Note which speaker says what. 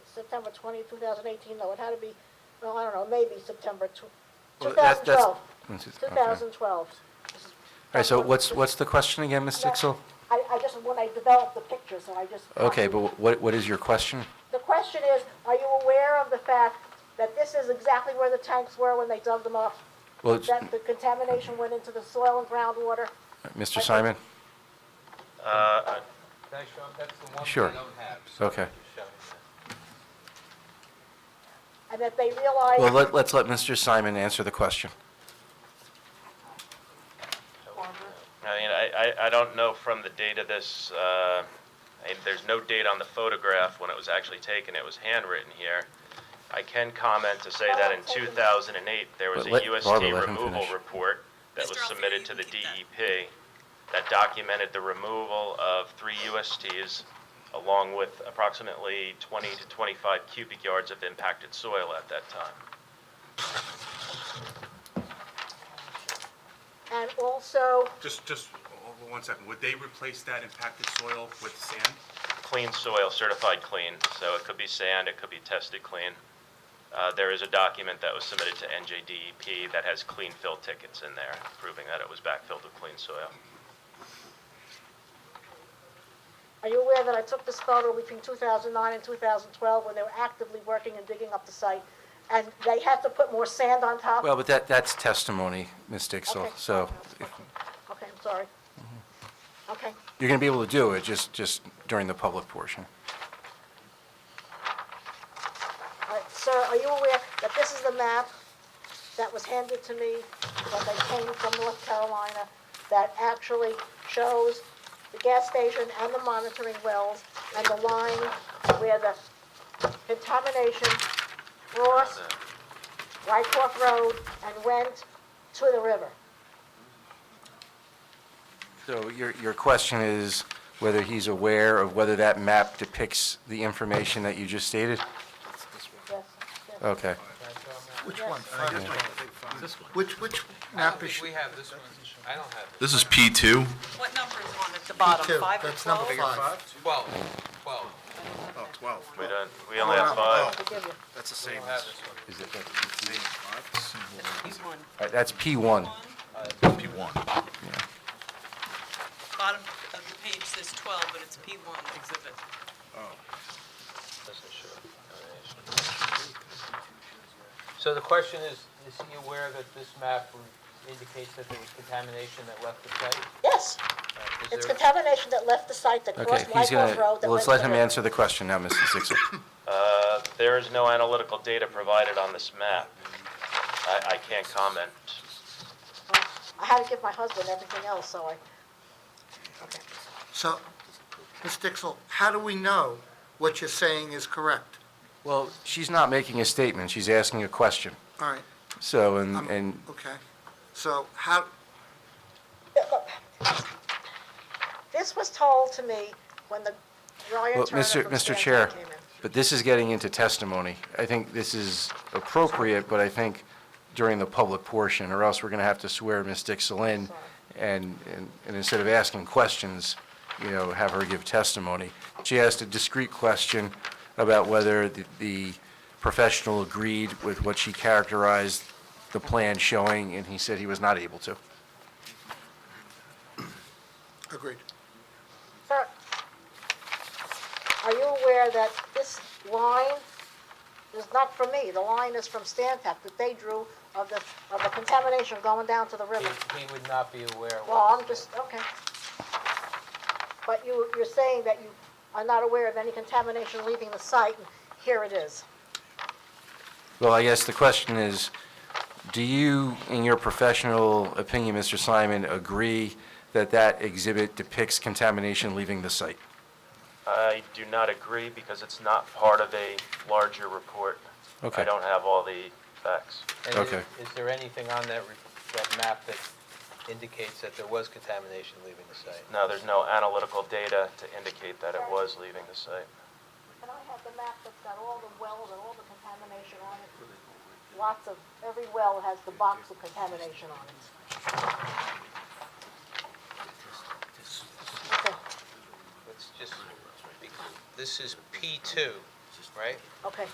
Speaker 1: September 20, 2018, no, it had to be, well, I don't know, maybe September tw-
Speaker 2: Well, that- that's-
Speaker 1: 2012.
Speaker 2: This is- okay.
Speaker 1: 2012. This is-
Speaker 2: All right, so
Speaker 1: that's what-
Speaker 2: what's, what's the question again, Ms. Dixell?
Speaker 1: I, I just, when I developed the picture, so I just.
Speaker 2: Okay, but what, what is your question?
Speaker 1: The question is, are you aware of the fact that this is exactly where the tanks were when they dug them up?
Speaker 2: Well, it's-
Speaker 1: That the contamination went into the soil and groundwater?
Speaker 2: Mr. Simon?
Speaker 3: Can I show, that's the one
Speaker 2: Sure.
Speaker 3: thing I don't have. so
Speaker 2: Okay.
Speaker 3: just show me that.
Speaker 1: And that they
Speaker 2: Well,
Speaker 1: realized,
Speaker 2: let, let's let Mr. Simon answer the question.
Speaker 4: I mean, I, I, I don't know from the date of this, uh, I mean, there's no date on the photograph when it was actually taken, it was handwritten here. I can comment to say that in two thousand and eight, there was a
Speaker 2: But let- Barbara,
Speaker 4: USD
Speaker 2: let him
Speaker 4: removal
Speaker 2: finish.
Speaker 4: report that was
Speaker 5: Mr. Alfieri,
Speaker 4: submitted
Speaker 5: you
Speaker 4: to
Speaker 5: can
Speaker 4: the
Speaker 5: keep that.
Speaker 4: DEP that documented the removal of three USTs along with approximately twenty to twenty-five cubic yards of impacted soil at that time.
Speaker 1: and also,
Speaker 6: Just, just o- o- one second. Would they replace that impacted soil with sand?
Speaker 4: clean soil, certified clean, so it could be sand, it could be tested clean. Uh, There is a document that was submitted to NJDEP E that has clean fill tickets in there, proving that it was backfilled with clean soil.
Speaker 1: are you aware that I took this photo between 2009 and 2012 when they were actively working and digging up the site? And they had to put more sand on top?
Speaker 2: Well, but that, that's testimony, Ms. Dixell,
Speaker 1: Okay.
Speaker 2: so
Speaker 1: Okay, I'm sorry. Okay.
Speaker 2: you're going to be able to do it, just, just during the public portion.
Speaker 1: All right, sir, are you aware that this is the map that was handed to me when they came from North Carolina that actually shows the gas station and the monitoring wells and the line where the contamination crossed Wyckoff Road and went to the river?
Speaker 2: So your, your question is whether he's aware of whether that map depicts the information that you just stated?
Speaker 1: Yes, yes.
Speaker 2: Okay.
Speaker 7: Which one? Which,
Speaker 3: I
Speaker 7: which
Speaker 3: don't
Speaker 7: map is
Speaker 3: think
Speaker 7: she?
Speaker 3: we have this one. I don't have
Speaker 8: This is P2.
Speaker 5: What number is on at the bottom,
Speaker 7: Two.
Speaker 5: five or
Speaker 7: That's number
Speaker 5: 12?
Speaker 7: five.
Speaker 3: it. Twelve. Twelve.
Speaker 7: Oh, twelve.
Speaker 4: We don't, we only have five.
Speaker 1: Forgive you.
Speaker 7: That's the same
Speaker 3: I don't have this one.
Speaker 2: Is it- All
Speaker 5: He's one.
Speaker 2: right, That's P1.
Speaker 5: One,
Speaker 8: P1.
Speaker 5: bottom of the page says 12, but it's P1 exhibit.
Speaker 3: Doesn't show it. So the question is, is he aware that this map indicates that there was contamination that left the site?
Speaker 1: Yes,
Speaker 3: Uh, is
Speaker 1: it's
Speaker 3: there-
Speaker 1: contamination that left the site that
Speaker 2: Okay,
Speaker 1: crossed
Speaker 2: he's
Speaker 1: Wyckoff
Speaker 2: going
Speaker 1: Road
Speaker 2: to,
Speaker 1: that went
Speaker 2: let's
Speaker 1: to the
Speaker 2: let him
Speaker 1: river.
Speaker 2: answer the question now, Mr. Dixell.
Speaker 4: Uh, There is no analytical data provided on this map. I, I can't comment.
Speaker 1: I had to give my husband everything else, so I,
Speaker 7: So, Ms. Dixell, how do we know what you're saying is correct?
Speaker 2: Well, she's not making a statement, she's asking a question.
Speaker 7: All right,
Speaker 2: So, and,
Speaker 1: Um,
Speaker 7: I'm-
Speaker 2: and
Speaker 7: okay. So how,
Speaker 1: This was told to me when the Ryan
Speaker 2: Well,
Speaker 1: Turner
Speaker 2: Mr.
Speaker 1: from
Speaker 2: Mr.
Speaker 1: Stanford
Speaker 2: Chair,
Speaker 1: came in.
Speaker 2: but this is getting into testimony. I think this is appropriate, but I think during the public portion, or else we're going to have to swear Ms. Dixell in, and, and- and instead of asking questions, you know, have her give testimony. She asked a discrete question about whether the- the professional agreed with what she characterized the plan showing, and he said he was not able to.
Speaker 7: agreed.
Speaker 1: Sir, are you aware that this line is not from me? The line is from Stantec that they drew of the, of the contamination going down to the river.
Speaker 3: He- He would not be aware of
Speaker 1: Well,
Speaker 3: what.
Speaker 1: I'm just, okay. But you, you're saying that you are not aware of any contamination leaving the site, and here it is.
Speaker 2: Well, I guess the question is, do you, in your professional opinion, Mr. Simon, agree that that exhibit depicts contamination leaving the site?
Speaker 4: I do not agree because it's not part of a larger report.
Speaker 2: Okay.
Speaker 4: I don't have all the facts.
Speaker 3: And
Speaker 2: Okay.
Speaker 3: is- Is there anything on that, re- that map that indicates that there was contamination leaving the site?
Speaker 4: No, there's no analytical data to indicate that it was leaving the site.
Speaker 1: Can I have the map that's got all the wells and all the contamination on it? Lots of, every well has the box of contamination on it. Okay,
Speaker 3: Let's just, this is P2. right?
Speaker 1: Okay,